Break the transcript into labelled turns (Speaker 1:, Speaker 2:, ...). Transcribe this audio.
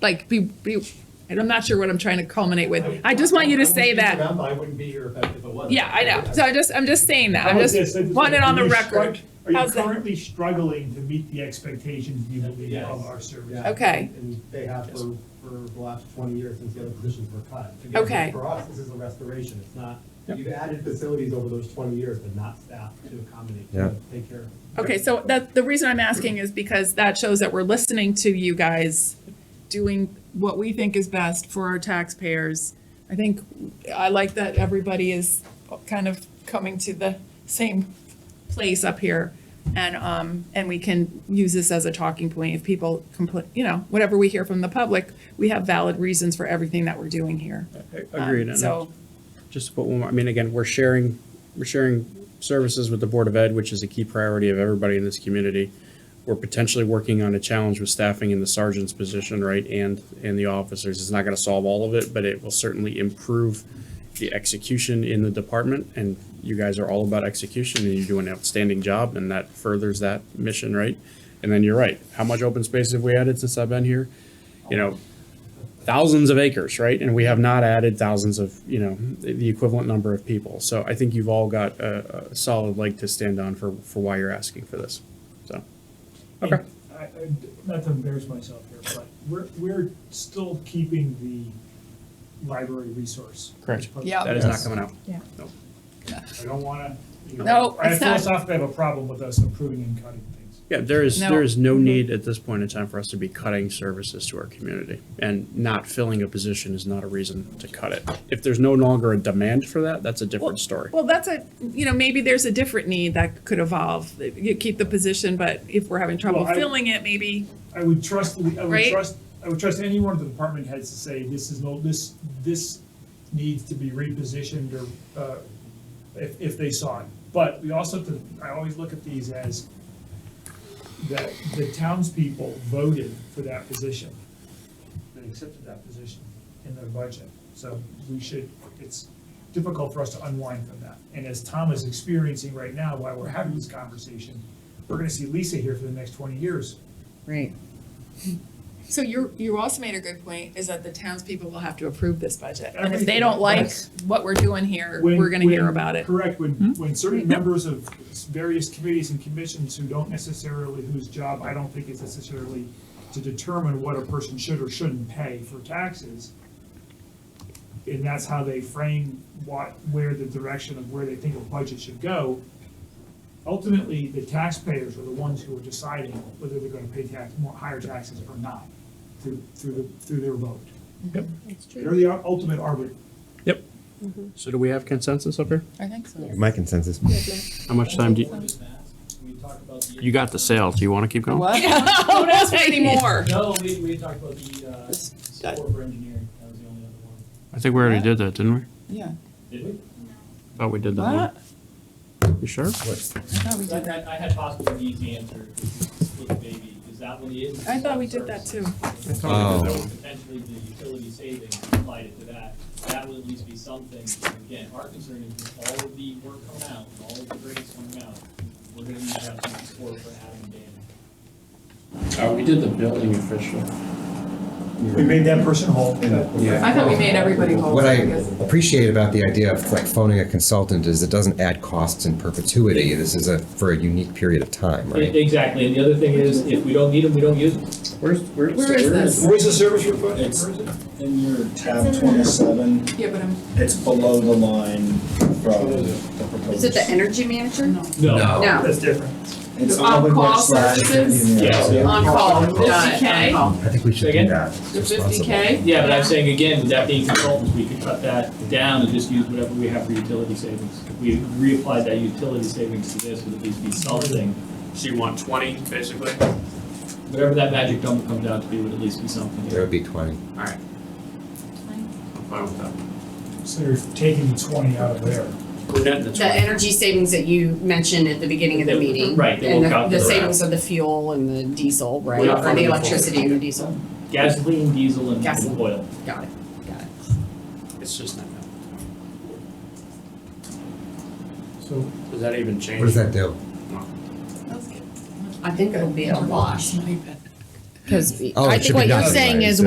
Speaker 1: like be, be, and I'm not sure what I'm trying to culminate with. I just want you to
Speaker 2: I wouldn't
Speaker 1: say
Speaker 2: be
Speaker 1: that.
Speaker 2: them. I wouldn't be here if if it wasn't.
Speaker 1: Yeah, I know. So I just, I'm just saying that.
Speaker 3: How
Speaker 1: I'm
Speaker 3: about
Speaker 1: just
Speaker 3: this? Let's-
Speaker 1: want it on
Speaker 3: are
Speaker 1: the
Speaker 3: you strug-
Speaker 1: record.
Speaker 3: Are you
Speaker 1: How's that?
Speaker 3: currently struggling to meet the expectations you believe
Speaker 2: Yes.
Speaker 3: of our service?
Speaker 2: Yeah.
Speaker 1: Okay.
Speaker 2: And they have for, for the last twenty years since the other positions were cut. Again,
Speaker 1: Okay.
Speaker 2: For us, this is a restoration, it's not, you've added facilities over those twenty years, but not staff to accommodate,
Speaker 4: Yeah.
Speaker 2: to take care of.
Speaker 1: Okay, so that, the reason I'm asking is because that shows that we're listening to you guys, doing what we think is best for our taxpayers. I think, I like that everybody is kind of coming to the same place up here. And, um, and we can use this as a talking point if people complain, you know, whatever we hear from the public, we have valid reasons for everything that we're doing here. Um,
Speaker 5: Agreed. And
Speaker 1: So,
Speaker 5: just to put one more, I mean, again, we're sharing, we're sharing services with the Board of Ed, which is a key priority of everybody in this community. We're potentially working on a challenge with staffing in the sergeant's position, right, and, and the officers. It's not gonna solve all of it, but it will certainly improve the execution in the department, and you guys are all about execution, and you do an outstanding job, and that furthers that mission, right? And then you're right, how much open space have we added since I've been here? You know, thousands of acres, right? And we have not added thousands of, you know, the the equivalent number of people. So I think you've all got a, a solid leg to stand on for, for why you're asking for this. So, okay.
Speaker 3: I, I, not to embarrass myself here, but we're, we're still keeping the library resource.
Speaker 5: Correct.
Speaker 1: Yeah.
Speaker 5: That is not coming out.
Speaker 1: Yeah.
Speaker 5: No.
Speaker 3: I don't wanna, you know.
Speaker 1: No,
Speaker 3: I
Speaker 1: it's not.
Speaker 3: philosophically have a problem with us improving and cutting things.
Speaker 5: Yeah, there is,
Speaker 1: No. Mm-hmm.
Speaker 5: there is no need at this point in time for us to be cutting services to our community. And not filling a position is not a reason to cut it. If there's no longer a demand for that, that's a different story.
Speaker 1: Well, that's a, you know, maybe there's a different need that could evolve. You keep the position, but if we're having trouble
Speaker 3: Well, I-
Speaker 1: filling it, maybe,
Speaker 3: I would trust, the- I would
Speaker 1: Right?
Speaker 3: trust, I would trust any one of the department heads to say, this is no, this, this needs to be repositioned or, uh, if, if they saw it. But we also have to, I always look at these as that the townspeople voted for that position. They accepted that position in their budget. So we should, it's difficult for us to unwind from that. And as Tom is experiencing right now, while we're having this conversation, we're gonna see Lisa here for the next twenty years.
Speaker 6: Right.
Speaker 1: so you're, you also made a good point, is that the townspeople will have to approve this budget. And if they don't like what we're doing here,
Speaker 3: when-
Speaker 1: we're gonna hear
Speaker 3: when-
Speaker 1: about it. Hmm?
Speaker 3: Correct, when, when certain members of various committees and commissions who don't necessarily, whose job I don't think is necessarily to determine what a person should or shouldn't pay for taxes, and that's how they frame what, where the direction of where they think a budget should go, ultimately, the taxpayers are the ones who are deciding whether they're gonna pay tax, more, higher taxes or not, through, through, the- through their vote.
Speaker 6: That's
Speaker 3: They're the ultimate arbiter.
Speaker 5: Yep. So do we have consensus up here?
Speaker 1: I think so.
Speaker 4: My consensus.
Speaker 5: How much time do you,
Speaker 2: Just ask, we talked about the-
Speaker 5: you got the sale, do you want to keep going?
Speaker 1: Who knows anymore?
Speaker 2: No, we, we talked about the, uh,
Speaker 6: This-
Speaker 2: support for engineering, that was the only other one.
Speaker 5: I think we already did that, didn't we?
Speaker 6: Yeah.
Speaker 2: Did we?
Speaker 5: Thought we did that
Speaker 6: What?
Speaker 5: one. You sure?
Speaker 6: No, we
Speaker 2: I
Speaker 6: did that.
Speaker 2: had, I had possibly an easy answer, which is split the baby, is that what it is?
Speaker 1: I thought we did that too.
Speaker 4: thought we did that
Speaker 2: Potentially the utility savings applied it to that, that would at least be something, again, our concern is with all of the work coming out, and all of the grades coming out, we're gonna need to have some support for Adam and Dan.
Speaker 5: Uh, we did the building official.
Speaker 3: We made that person whole.
Speaker 4: Yeah.
Speaker 1: I thought we made everybody whole.
Speaker 4: What I
Speaker 1: I guess.
Speaker 4: appreciate about the idea of like phoning a consultant is it doesn't add costs in perpetuity. This is a, for a unique period of time, right?
Speaker 2: E, Exactly, and the other thing is, if we don't need them, we don't use them.
Speaker 5: Where's, where's?
Speaker 1: Where is this?
Speaker 7: Where's the service report?
Speaker 2: It's-
Speaker 7: In your tab twenty-seven,
Speaker 1: Yeah, but I'm,
Speaker 7: it's below the line from the proposed.
Speaker 6: Is it the energy manager? No.
Speaker 2: No.
Speaker 6: No.
Speaker 3: That's different.
Speaker 7: It's
Speaker 1: The
Speaker 7: on the
Speaker 1: on-call
Speaker 7: website.
Speaker 1: services?
Speaker 7: Yeah.
Speaker 2: Yeah.
Speaker 1: on call, fifty K,
Speaker 4: I think we should do
Speaker 2: Again?
Speaker 4: that. It's
Speaker 1: the fifty
Speaker 4: responsible.
Speaker 1: K.
Speaker 2: Yeah, but I'm saying again, with that being consultants, we could cut that down and just use whatever we have for utility savings. If we reapplied that utility savings to this, would at least be something,
Speaker 5: So you want twenty, basically?
Speaker 2: whatever that magic number comes out to be, would at least be something.
Speaker 4: There would be twenty.
Speaker 5: Alright. I'm fine with that.
Speaker 3: So you're taking the twenty out of there.
Speaker 5: We're netting the
Speaker 6: The
Speaker 5: twenty.
Speaker 6: energy savings that you mentioned at the beginning of the meeting.
Speaker 2: Right, they will
Speaker 6: And the- the
Speaker 2: calculate that.
Speaker 6: savings of the fuel and the diesel, right?
Speaker 2: We're not
Speaker 6: Or the
Speaker 2: funding the fuel.
Speaker 6: electricity and the diesel.
Speaker 2: Gasoline, diesel, and
Speaker 6: Gas.
Speaker 2: oil.
Speaker 6: Got it, got it.
Speaker 5: It's just not that.
Speaker 3: So
Speaker 5: Does that even change?
Speaker 4: What does that do?
Speaker 6: I think it'll be a wash. Because
Speaker 4: Oh, it
Speaker 6: I
Speaker 4: should
Speaker 6: think
Speaker 4: be
Speaker 6: what you're
Speaker 4: nothing,
Speaker 6: saying
Speaker 4: right?
Speaker 6: is